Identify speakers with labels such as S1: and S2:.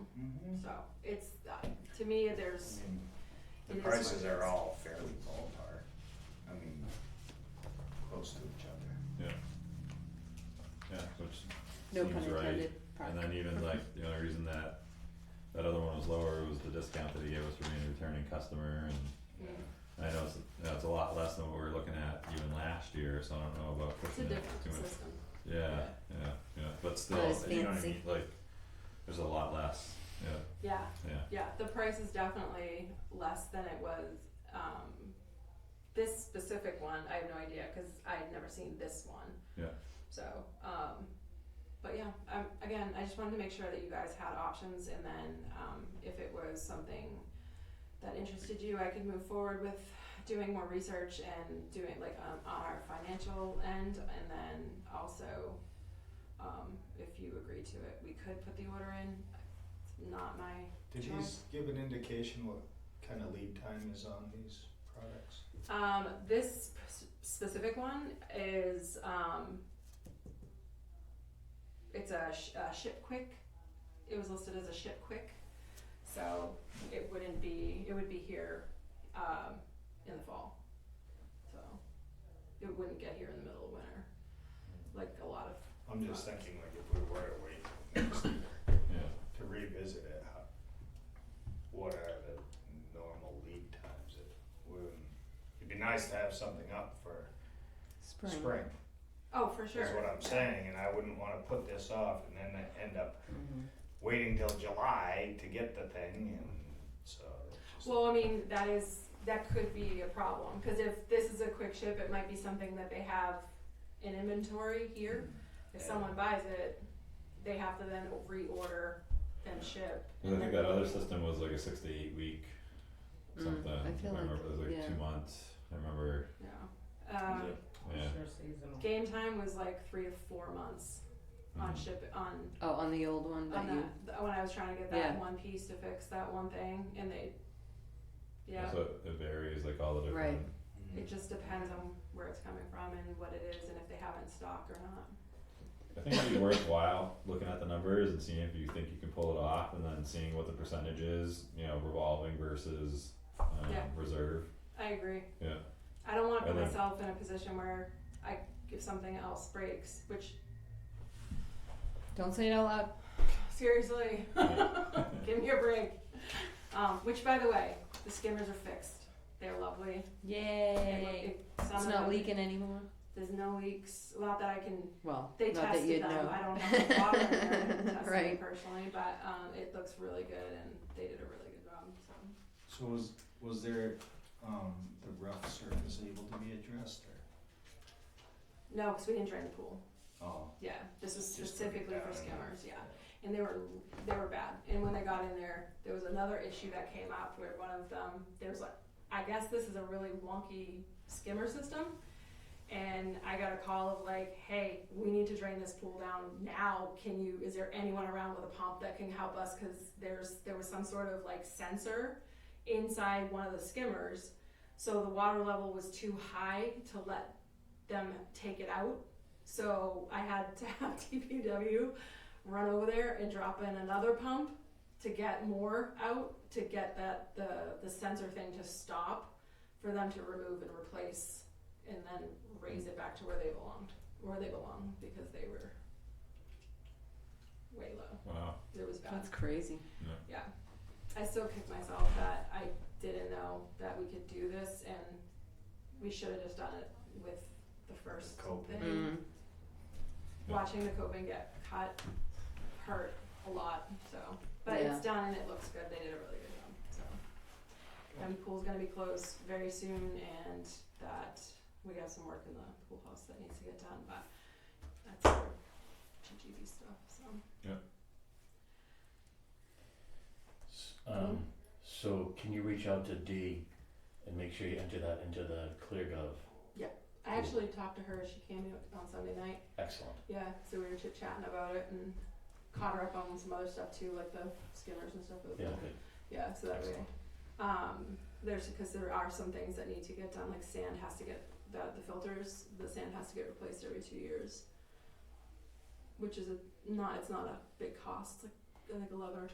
S1: So it's, uh, to me,
S2: I
S1: there's,
S2: mean,
S1: Mm-hmm. It
S2: The
S1: is what
S2: prices
S1: it
S2: are
S1: is.
S2: all fairly ballpark, I mean, close to each other.
S3: Yeah. Yeah, which
S4: No pun
S3: seems right,
S4: intended,
S3: and
S4: probably.
S3: then even like, the only reason that, that other one was lower was the discount that he gave us for being a returning customer and. I know it's, you know, it's a lot less than what we were looking at even last year, so I don't know about
S1: it's a
S3: pushing it too
S1: different
S3: much.
S1: system.
S3: Yeah, yeah, yeah, but still,
S4: as
S3: you know what I
S4: fancy.
S3: mean, like, there's a lot less, yeah,
S1: Yeah,
S3: yeah,
S1: yeah, the price is definitely less than it was, um, this specific one, I have no idea, cause I had never seen this one.
S3: Yeah.
S1: So, um, but yeah, um, again, I just wanted to make sure that you guys had options and then, um, if it was something that interested you, I could move forward with doing more research and doing like on, on our financial end and then also, um, if you agree to it, we could put the order in, it's not my
S2: Did
S1: Sure.
S2: you give an indication what kind of lead time is on these products?
S1: Um, this sp- specific one is um, it's a, sh- a ship quick. It was listed as a ship quick, so it wouldn't be. It would be here um, in the fall, so it wouldn't get here in the middle of winter, like a lot of.
S2: I'm just thinking like if we were to wait next year
S3: yeah,
S2: to revisit it, how, what are the normal lead times? It would, it'd be nice to have something up for
S4: Spring.
S2: spring,
S1: Oh, for sure.
S2: is what I'm saying, and I wouldn't wanna put this off and then end up
S3: Mm-hmm.
S4: Mhm.
S2: waiting till July to get the thing and so. it's just-
S1: Well, I mean, that is, that could be a problem, cause if this is a quick ship, it might be something that they have in inventory here. If
S2: Yeah.
S1: someone buys it, they have to then reorder and ship.
S3: and I think
S1: and
S3: that
S1: then-
S3: other system was like a six to eight week
S4: Mm,
S3: something,
S4: I
S3: I
S4: feel like-
S3: remember, it was like
S4: yeah.
S3: two months, I remember,
S1: No, um,
S3: yeah,
S1: game time was like three to four months on
S3: Mhm.
S1: ship, on,
S4: Oh, on the old one that
S1: on
S4: you,
S1: that, th- when I was trying to get that
S4: Yeah.
S1: one piece to fix that one thing, and they, yeah.
S3: so it- it varies, like all the
S4: Right.
S3: different,
S2: Mm-hmm.
S1: It just depends on where it's coming from and what it is, and if they have it in stock or not.
S3: I think it'd be worthwhile looking at the numbers and seeing if you think you can pull it off and then seeing what the percentage is, you know, revolving versus um
S1: Yeah.
S3: reserve,
S1: I agree.
S3: yeah,
S1: I don't want to put
S3: And then-
S1: myself in a position where I if something else breaks, which
S4: don't say it out loud.
S1: seriously,
S3: Yeah.
S1: give me a break. Um, which by the way, the skimmers are fixed. They're lovely. They look-
S4: Yay.
S1: it- some
S4: It's
S1: of
S4: not
S1: them-
S4: leaking anymore?
S1: There's no leaks. Not that I can.
S4: Well,
S1: They
S4: not that
S1: tested
S4: you'd
S1: them.
S4: know.
S1: I don't have the water in there I didn't test them
S4: Right.
S1: personally, but um, it looks really good, and they did a really good job. So
S2: So was, was there, um, the rough surface able to be addressed or?
S1: no, because we didn't drain the pool.
S2: Oh.
S1: Yeah, this was
S2: Just put it
S1: specifically
S2: down
S1: for
S2: and-
S1: skimmers. Yeah. and they were they were bad. And when they got in there, there was another issue that came up where one of them there's like I guess this is a really wonky skimmer system. And I got a call of like, hey, we need to drain this pool down now. Can you? Is there anyone around with a pump that can help us? Because there's there was some sort of like sensor inside one of the skimmers, so the water level was too high to let them take it out. So I had to have TPW run over there and drop in another pump to get more out to get that the the sensor thing to stop for them to remove and replace and then raise it back to where they belonged where they belong because they were way low
S3: wow,
S1: it was bad
S4: That's crazy.
S1: i still kick myself that i didn't know that we could do this and we should have just done it with the first
S2: Coping.
S1: thing
S4: Mm.
S1: watching the coping get cut hurt a lot. So, but
S4: Yeah.
S1: it's done and it looks good. They did a really good job. So, and the pool's gonna be closed very soon, and that we have some work in the pool house that needs to get done. But that's our GGB stuff. So,
S5: S-
S1: Mm-hmm.
S5: Um, so can you reach out to Dee and make sure you enter that into the ClearGov?
S1: I actually talked to her. She came in on Sunday night.
S5: Excellent.
S1: Yeah, so we were chit chatting about it and caught her up on some other stuff too, like the skimmers and stuff. It was
S5: Yeah,
S1: cool.
S5: good.
S1: Yeah, so that way,
S5: Excellent.
S1: um, there's, cause there are some things that need to get done, like sand has to get, the, the filters, the sand has to get replaced every two years. Which is a, not, it's not a big cost, it's like, I think eleven or